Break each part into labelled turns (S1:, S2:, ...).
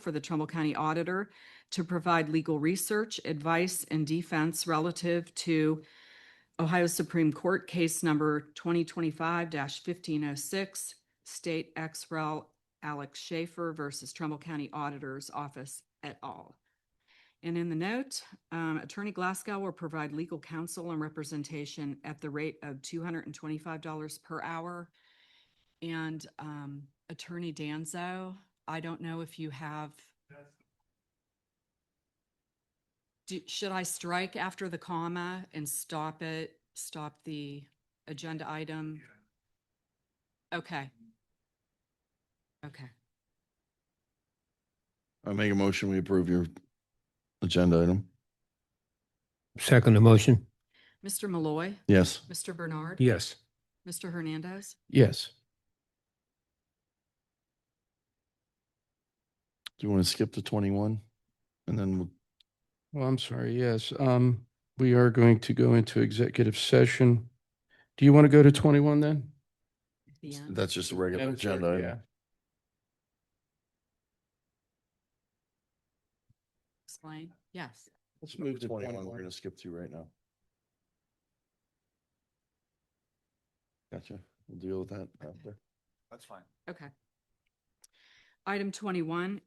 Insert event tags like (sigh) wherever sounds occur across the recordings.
S1: for the Trumbull County Auditor to provide legal research, advice, and defense relative to Ohio Supreme Court Case Number 2025-1506, State Ex Rel. Alex Schaefer versus Trumbull County Auditor's Office et al. And in the note, um, Attorney Glasgow will provide legal counsel and representation at the rate of two hundred and twenty-five dollars per hour. And um, Attorney Danzo, I don't know if you have. Do- Should I strike after the comma and stop it, stop the agenda item? Okay. Okay.
S2: I make a motion, we approve your agenda item.
S3: Second the motion?
S1: Mr. Malloy,
S2: Yes.
S1: Mr. Bernard.
S3: Yes.
S1: Mr. Hernandez.
S3: Yes.
S2: Do you want to skip to twenty-one? And then we'll
S3: Well, I'm sorry, yes. Um, we are going to go into executive session. Do you want to go to twenty-one then?
S1: at the end.
S2: that's just a regular
S3: Madam Clerk,
S2: agenda
S3: yeah.
S2: item.
S1: Explain, yes.
S3: Let's move to
S2: Twenty-one, we're
S3: twenty-one.
S2: gonna skip to right now. Gotcha. We'll deal with that after.
S4: That's fine.
S1: Okay. Item twenty-one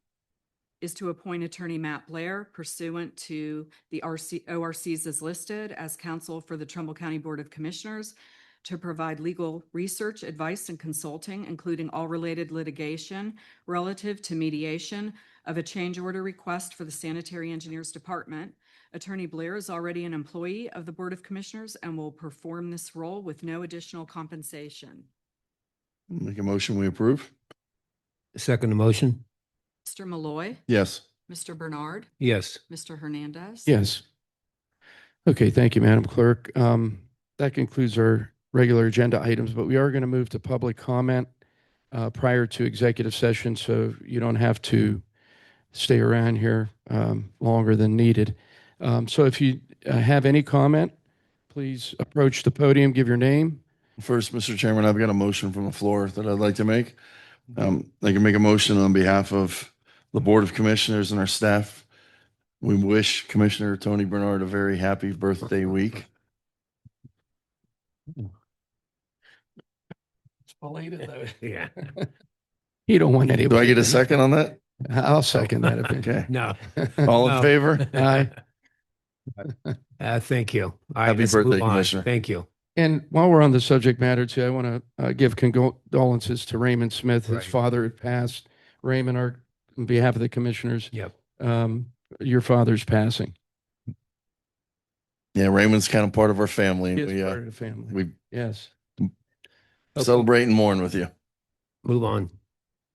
S1: is to appoint Attorney Matt Blair pursuant to the RC, ORCs as listed as counsel for the Trumbull County Board of Commissioners to provide legal research, advice, and consulting, including all related litigation relative to mediation of a change order request for the Sanitary Engineers Department. Attorney Blair is already an employee of the Board of Commissioners and will perform this role with no additional compensation.
S2: Make a motion, we approve?
S3: Second the motion?
S1: Mr. Malloy.
S2: Yes.
S1: Mr. Bernard,
S3: Yes.
S1: Mr. Hernandez.
S3: Yes. Okay, thank you, Madam Clerk. Um, that concludes our regular agenda items, but we are going to move to public comment uh, prior to executive session, so you don't have to stay around here um, longer than needed. Um, so if you uh, have any comment, please approach the podium, give your name.
S2: First, Mr. Chairman, I've got a motion from the floor that I'd like to make. Um, I can make a motion on behalf of the Board of Commissioners and our staff. We wish Commissioner Tony Bernard a very happy birthday week.
S3: It's belated, though.
S5: (laughs) Yeah.
S3: You don't want anybody.
S2: Do I get a second on that?
S3: (laughs) I'll second that. (laughs)
S2: Okay.
S5: No.
S3: if-
S2: All in
S5: No.
S2: favor? (laughs)
S3: Aye.
S5: Uh, thank you. All right,
S2: Happy
S5: let's move
S2: birthday,
S5: on.
S2: Commissioner.
S5: Thank you.
S3: And while we're on the subject matter too, I want to give condolences to Raymond Smith. His
S5: Right.
S3: father had passed. Raymond, our, on behalf of the commissioners.
S5: Yep.
S3: Um, your father's passing.
S2: Yeah, Raymond's kind of part of our family.
S3: He
S2: and
S3: is
S2: We,
S3: part
S2: uh,
S3: of the family.
S2: we
S3: Yes. Okay.
S2: celebrate and mourn with you.
S5: Move on.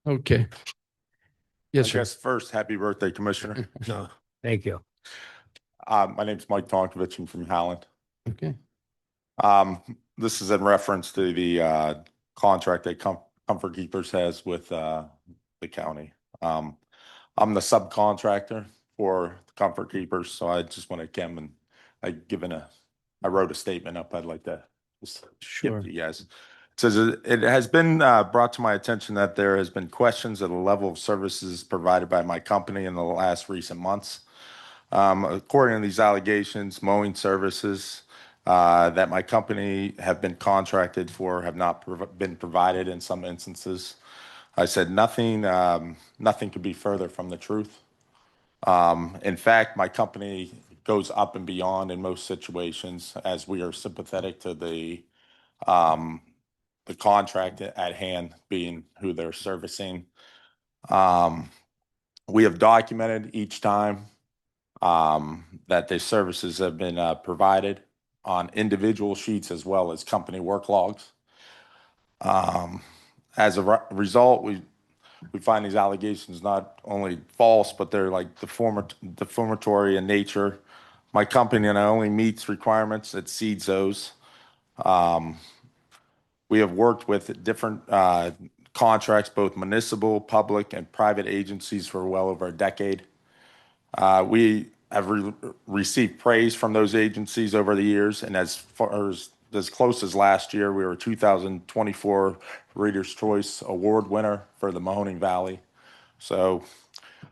S3: Okay.
S4: I
S3: Yes, sir.
S4: guess first, happy birthday, Commissioner.
S3: (laughs)
S5: No, thank you.
S4: Uh, My name's Mike Tonkovich. I'm from Howland.
S3: Okay.
S4: Um, This is in reference to the uh, contract that Com- Comfort Keepers has with uh, the county. Um, I'm the subcontractor for Comfort Keepers, so I just want to come and I given a, I wrote a statement up. I'd like to just
S3: Sure.
S4: give to you guys. It Says uh, it has been uh, brought to my attention that there has been questions of the level of services provided by my company in the last recent months. Um, According to these allegations, mowing services uh, that my company have been contracted for have not prov- been provided in some instances. I said nothing, um, nothing could be further from the truth. Um, in fact, my company goes up and beyond in most situations as we are sympathetic to the um, the contract at hand being who they're servicing. Um, we have documented each time um, that the services have been uh, provided on individual sheets as well as company work logs. Um, as a re- result, we we find these allegations not only false, but they're like deformat- defamatory in nature. My company not only meets requirements, it exceeds those. Um, we have worked with different uh, contracts, both municipal, public, and private agencies for well over a decade. Uh, we have re- received praise from those agencies over the years, and as far as as close as last year, we were 2024 Reader's Choice Award winner for the Mahoning Valley. So